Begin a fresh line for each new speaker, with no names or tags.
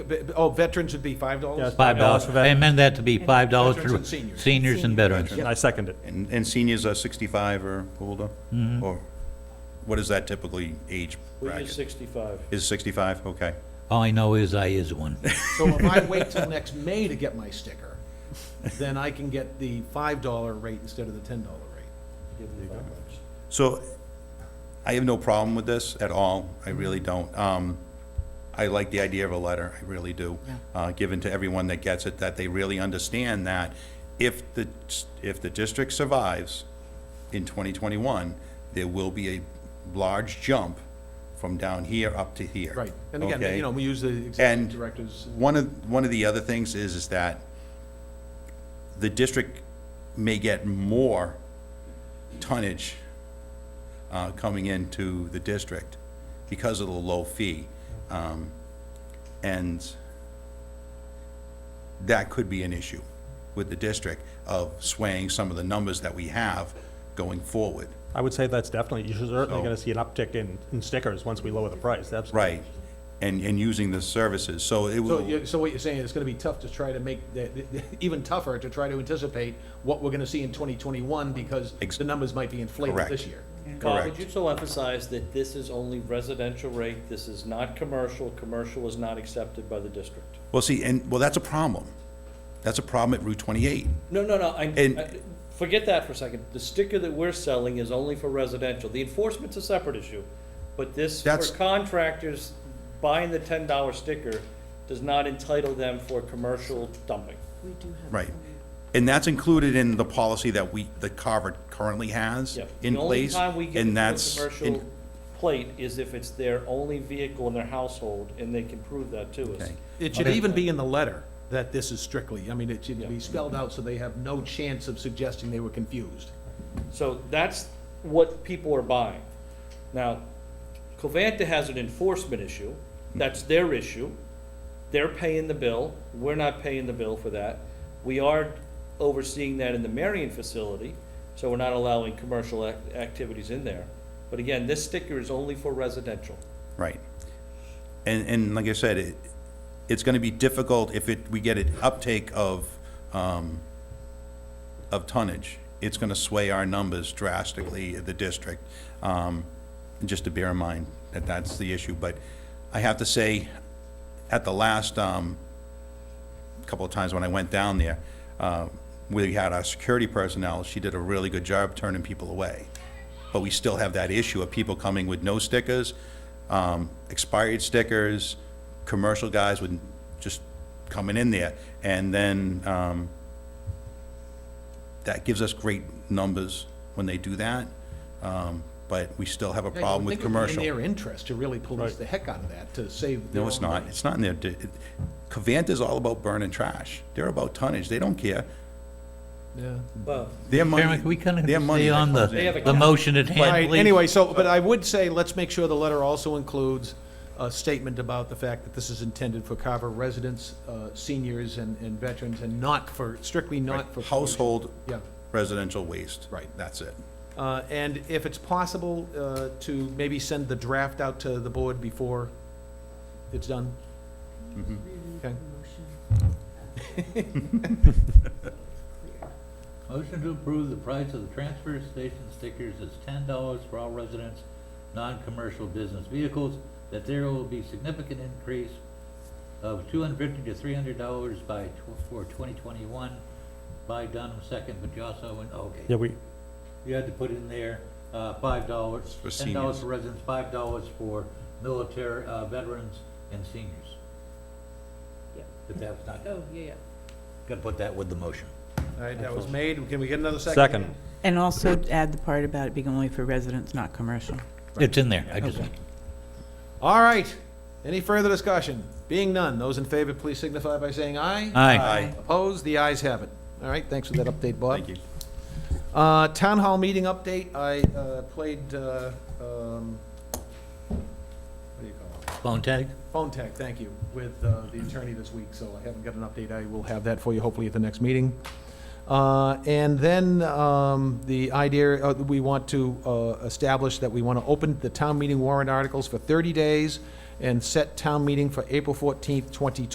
Ve- Oh, veterans would be five dollars?
Yes.
Five dollars.
$5 for
I
veterans.
amend that to be five dollars
Veterans
for
and seniors.
seniors and veterans.
I second it.
And, and seniors are 65 or older?
Mm-hmm.
Or what is that typically age
We use
bracket?
sixty-five.
Is 65? Okay.
All I know is I is one.
So if I wait till next May to get my sticker, then I can get the five dollar rate instead of the ten dollar rate.
Give them five bucks.
So I have no problem with this at all. I
Mm-hmm.
really don't. Um, I like the idea of a letter, I really do. Uh, given to everyone that gets it, that they really understand that if the, if the district survives in twenty twenty-one, there will be a large jump from down here up to here.
Right, and again,
okay?
you know, we use the executive
And
directors.
one of, one of the other things is, is that the district may get more tonnage uh, coming into the district because of the low fee. Um, And that could be an issue with the district of swaying some of the numbers that we have going forward.
I would say that's definitely, you're certainly
So-
gonna see an uptick in, in stickers once we lower the price, absolutely.
Right, and, and using the services, so it
So
will.
you, so what you're saying, it's gonna be tough to try to make, that even tougher to try to anticipate what we're gonna see in twenty twenty-one because
Ex-
the numbers might be inflated
Correct.
this year.
Bob,
Correct.
would you so emphasize that this is only residential rate, this is not commercial, commercial is not accepted by the district?
Well, see, and, well, that's a problem. That's a problem at Route 28.
No, no, no, I,
And-
I- forget that for a second, the sticker that we're selling is only for residential, the enforcement's a separate issue, but this, for
That's-
contractors, buying the ten dollar sticker does not entitle them for commercial dumping.
We do have.
Right. And that's included in the policy that we, that Carver currently has
Yep.
in place.
The only time we get
and
into a
that's in-
commercial plate is if it's their only vehicle in their household, and they can prove that to us.
Okay.
It should even be in the letter that this is strictly, I mean, it should be spelled out so they have no chance of suggesting they were confused.
So that's what people are buying. Now, Covanta has an enforcement issue, that's their issue. They're paying the bill, we're not paying the bill for that. We are overseeing that in the Marion facility, so we're not allowing commercial ac- activities in there. But again, this sticker is only for residential.
Right. And, and like I said, it, it's gonna be difficult if it, we get an uptake of, um, of tonnage. It's gonna sway our numbers drastically at the district. Um, just to bear in mind that that's the issue, but I have to say, at the last, um, couple of times when I went down there, uh, we had our security personnel, she did a really good job turning people away. But we still have that issue of people coming with no stickers, um, expired stickers, commercial guys with, just coming in there. And then, um, that gives us great numbers when they do that, um, but we still have
Yeah,
a
you would
problem with
think it would be
commercial.
In their interest to really police the heck out of that, to save. their
No, it's
own
not.
money.
It's not in their, Cavanta's all about burning trash. They're about tonnage. They don't care.
Yeah.
Well,
Their money.
Chairman, can we kind of
their money
stay on the,
comes in.
They have a
the motion at
All
hand,
right,
please?
anyway, so, but I would say, let's make sure the letter also includes a statement about the fact that this is intended for Carver residents, uh, seniors and, and veterans, and not for, strictly not for.
Household
Yeah.
residential waste.
Right.
That's it.
Uh, and if it's possible, uh, to maybe send the draft out to the board before it's done?
Mm-hmm.
Okay.
Motion to approve the price of the transfer station stickers is ten dollars for all residents, non-commercial business vehicles, that there will be significant increase of two hundred fifty to three hundred dollars by, tw- for twenty twenty-one, by Dunham second, but you also, went- okay.
Yeah, we,
You had to put in there, uh, five dollars,
For
ten dollars
seniors.
for residents, five dollars for military, uh, veterans and seniors.
Yeah.
If that was not,
Oh, yeah, yeah.
gotta put that with the motion.
All right, that was made. Can we get another second?
second.
And also add the part about it being only for residents, not commercial.
It's in there, I just,
All right. Any further discussion? Being none, those in favor, please signify by saying aye.
aye.
Opposed? The ayes have it. All right, thanks for that update, Bob.
Thank you.
Uh, town hall meeting update, I, uh, played, uh, um, what do you call it?
Phone tag?
Phone tag, thank you, with, uh, the attorney this week, so I haven't got an update. I will have that for you hopefully at the next meeting. Uh, and then, um, the idea, uh, we want to, uh, establish that we want to open the town meeting warrant articles for thirty days and set town meeting for April fourteenth, twenty